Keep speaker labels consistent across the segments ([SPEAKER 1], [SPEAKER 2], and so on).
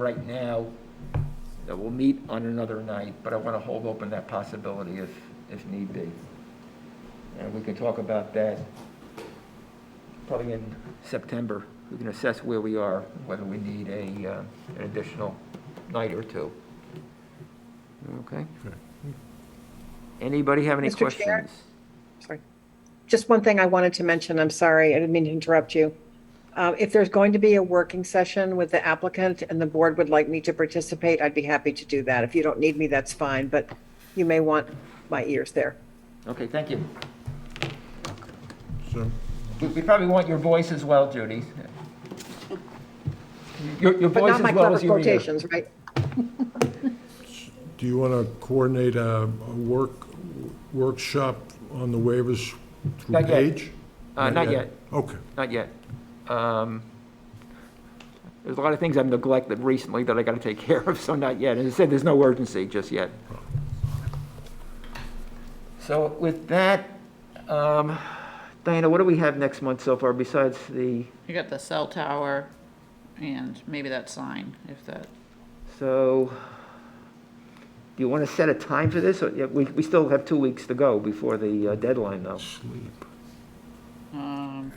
[SPEAKER 1] right now, that we'll meet on another night, but I want to hold open that possibility if, if need be. And we can talk about that probably in September. We can assess where we are, whether we need a, uh, an additional night or two. Okay? Anybody have any
[SPEAKER 2] Mr. Chair?
[SPEAKER 1] questions?
[SPEAKER 2] sorry. Just one thing I wanted to mention, I'm sorry, I didn't mean to interrupt you. Uh, If there's going to be a working session with the applicant and the board would like me to participate, I'd be happy to do that. If you don't need me, that's fine, but you may want my ears there.
[SPEAKER 1] Okay, thank you.
[SPEAKER 3] So,
[SPEAKER 1] We- We probably want your voice as well, Judy. Your, your
[SPEAKER 2] But
[SPEAKER 1] voice
[SPEAKER 2] not
[SPEAKER 1] as
[SPEAKER 2] my
[SPEAKER 1] well
[SPEAKER 2] clever
[SPEAKER 1] as your ear.
[SPEAKER 2] quotations, right?
[SPEAKER 3] do you want to coordinate a, a work, workshop on the waivers through
[SPEAKER 1] Not yet.
[SPEAKER 3] Paige?
[SPEAKER 1] Uh, not yet.
[SPEAKER 3] Okay,
[SPEAKER 1] Not yet. Um, There's a lot of things I've neglected recently that I got to take care of, so not yet. As I said, there's no urgency just yet. So with that, um, Diana, what do we have next month so far besides the,
[SPEAKER 4] You got the cell tower and maybe that sign, if that,
[SPEAKER 1] so, do you want to set a time for this? Or- yeah, We, we still have two weeks to go before the uh, deadline, though.
[SPEAKER 3] sleep.
[SPEAKER 4] um,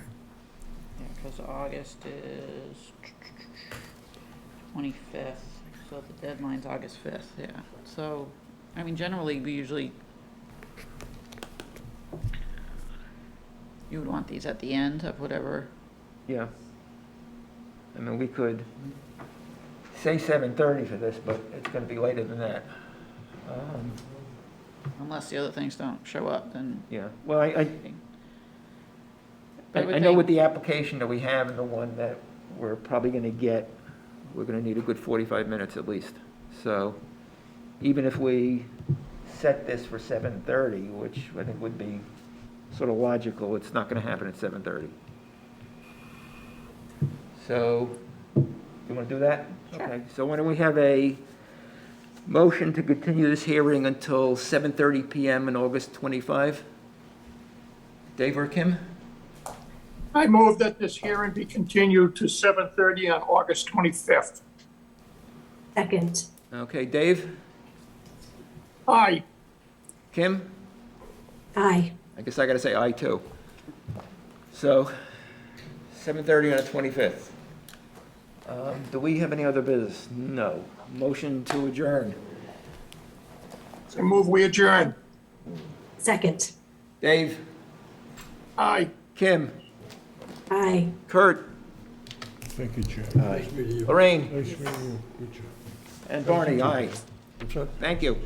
[SPEAKER 4] yeah, because August is twenty-fifth, so the deadline's August fifth, yeah. So, I mean, generally, we usually, you would want these at the end of whatever,
[SPEAKER 1] Yeah. I mean, we could say 7:30 for this, but it's going to be later than that. Um,
[SPEAKER 4] unless the other things don't show up, then.
[SPEAKER 1] Yeah, well, I, I- I,
[SPEAKER 4] But
[SPEAKER 1] I know with the application that we have and the one that we're probably going to get, we're going to need a good 45 minutes at least. So even if we set this for 7:30, which I think would be sort of logical, it's not going to happen at 7:30. So, you want to do that? Okay. So why don't we have a motion to continue this hearing until 7:30 PM on August 25? Dave or Kim?
[SPEAKER 5] I move that this hearing be continued to 7:30 on August 25th.
[SPEAKER 6] Second,
[SPEAKER 1] Okay, Dave,
[SPEAKER 5] Aye,
[SPEAKER 1] Kim,
[SPEAKER 6] aye,
[SPEAKER 1] I guess I gotta say I too. So, seven thirty on the twenty-fifth. Um, do we have any other business? No. Motion to adjourn.
[SPEAKER 5] I move we adjourn.
[SPEAKER 6] second,
[SPEAKER 1] Dave,
[SPEAKER 5] Aye.
[SPEAKER 1] Kim,
[SPEAKER 6] aye.
[SPEAKER 1] Kurt,
[SPEAKER 3] Thank you, Chair.
[SPEAKER 1] Lorraine,
[SPEAKER 3] Nice meeting you. Good job.
[SPEAKER 1] and Barney, aye.
[SPEAKER 3] What's that?
[SPEAKER 1] Thank you.